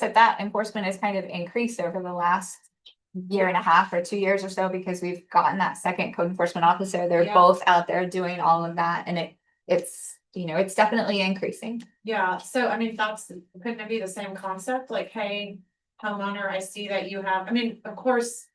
that that enforcement has kind of increased over the last year and a half or two years or so because we've gotten that second code enforcement officer. They're Yeah. both out there doing all of that and it, it's, you know, it's definitely increasing. Yeah, so I mean, that's, couldn't it be the same concept, like, hey, homeowner, I see that you have, I mean, of course.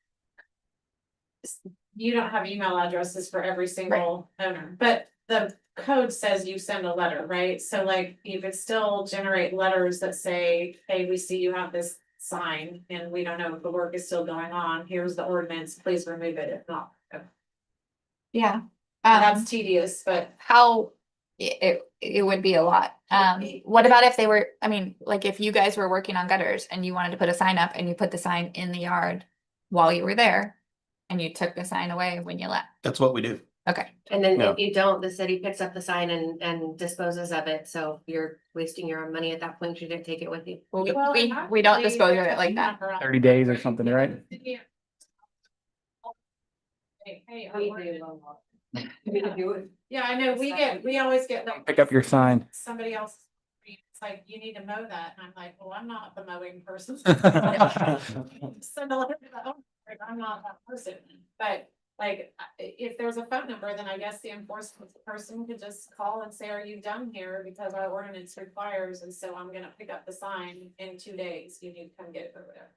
s- You don't have email addresses for every single owner, but the code says you send a letter, right? So like, you could still generate letters that say, hey, we see you have this sign and we don't know if the work is still going on, here's the ordinance, please remove it if not. Um, Yeah. Um, That's tedious, but how, it, it, it would be a lot. Um, what about if they were, I mean, like if you guys were working on gutters and you wanted to put a sign up and you put the sign in the yard while you were there and you took the sign away when you left? That's what we do. Okay. And then Yeah. if you don't, the city picks up the sign and, and disposes of it, so you're wasting your own money at that point, you didn't take it with you. Well, we, Well, we, and we don't actually, dispose of there's it a like that. number on- thirty days or something, right? Yeah. Hey, hey, I We wanted- do. We do Yeah, I know, we get, we always get like. Pick up your sign. Somebody else, it's like, you need to mow that, and I'm like, well, I'm not the mowing person. Send a letter to the owner, like, I'm not that person, but like, I- if there's a phone number, then I guess the enforcement person could just call and say, are you done here? Because our ordinance requires, and so I'm gonna pick up the sign in two days, you need to come get it or whatever.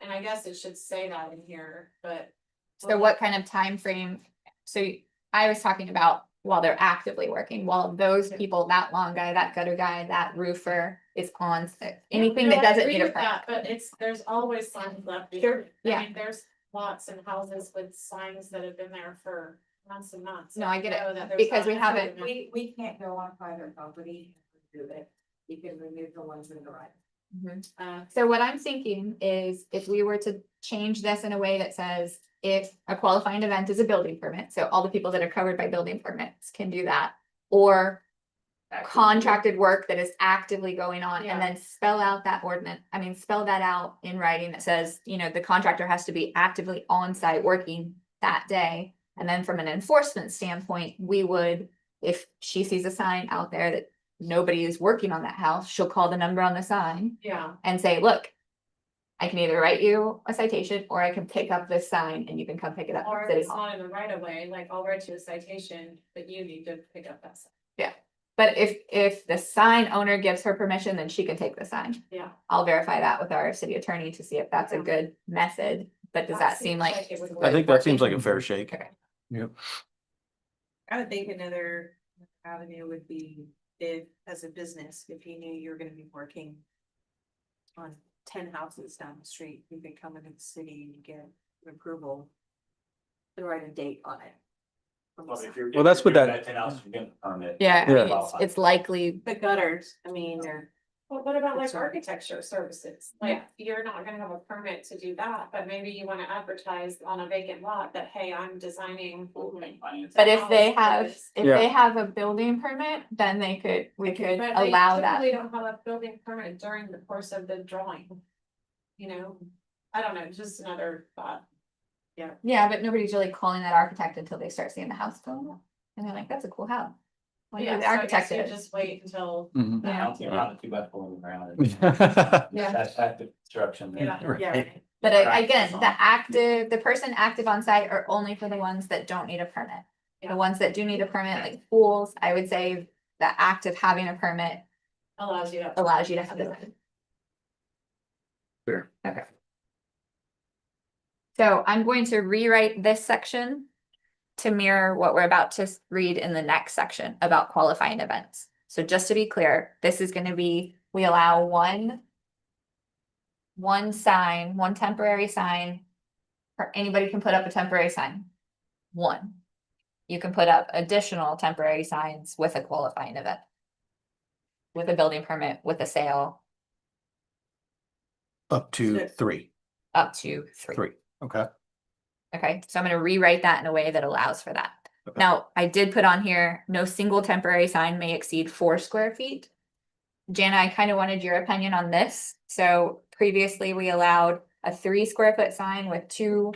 And I guess it should say that in here, but. So what kind of time frame? So y- I was talking about while they're actively working, while those people, that long guy, that gutter guy, that roofer is on sick. Yeah, Anything no, that I doesn't agree need a with permit. that, But it's, there's always signs left. Sure, behind. yeah. I mean, there's lots and houses with signs that have been there for months and months. No, I get it, know that there's because we signs. haven't- We, we can't go on private property and remove it. You can remove the ones in the right. Mhm. Uh, So what I'm thinking is if we were to change this in a way that says if a qualifying event is a building permit, so all the people that are covered by building permits can do that. Or contracted work that is actively going on Yeah. and then spell out that ordinance, I mean, spell that out in writing that says, you know, the contractor has to be actively on site working that day. And then from an enforcement standpoint, we would, if she sees a sign out there that nobody is working on that house, she'll call the number on the sign yeah, and say, look, I can either write you a citation or I can pick up this sign and you can come pick it up. or at if City it's Hall." not in the right of way, like I'll write you a citation, but you need to pick up that sign. But if, if the sign owner gives her permission, then she can take the sign. Yeah. I'll verify that with our city attorney to see if that's a Okay. good method, but does That that seem seems like? like it would I think that seems like a working? fair shake. Yep. I would think another avenue would be if, as a business, if you knew you were gonna be working on ten houses down the street, you could come into the city and get approval to write a date on it. from the Well, sign. if you're- Well, that's if you're what doing that- Ten hours, you're getting a permit. Yeah, I mean, Yeah. it's, it's likely, The gutters, I mean, they're. Well, what about like Sorry. architecture services? Like, you're not gonna have a permit to do that, but maybe you wanna advertise on a vacant lot that, hey, I'm designing. Finance. but if they have, Hours. if Yeah. they have a building permit, then they could, we could But they allow that. typically don't have a building permit during the course of the drawing. You know, I don't know, just another thought. Yeah, but nobody's really calling that architect until they start seeing the house going up. And they're like, that's a cool house. Wonder Yeah, who the so I guess architect you is. Just wait until, Mhm. I Yeah, don't see around a two by four in the ground. Yeah. That's active construction Yeah. there. Right. but I- Right. again, the active, the person active on site are only for the ones that don't need a permit. Yeah. The ones that do need a permit, like pools, I would say the active having a permit allows you to. allows you to have the sign. Fair. Okay. So I'm going to rewrite this section to mirror what we're about to s- read in the next section about qualifying events. So just to be clear, this is gonna be, we allow one one sign, one temporary sign, or anybody can put up a temporary sign. One. You can put up additional temporary signs with a qualifying event with a building permit, with a sale, Up to three, up to three. three. Okay. Okay, so I'm gonna rewrite that in a way that allows for that. Okay. Now, I did put on here, no single temporary sign may exceed four square feet. Jana, I kind of wanted your opinion on this. So previously, we allowed a three square foot sign with two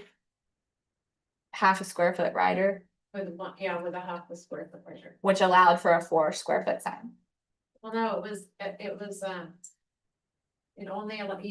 half a square foot rider, With one, yeah, with a half the square foot measure. which allowed for a four square foot sign. Well, no, it was, it it was, um. It only, allow- you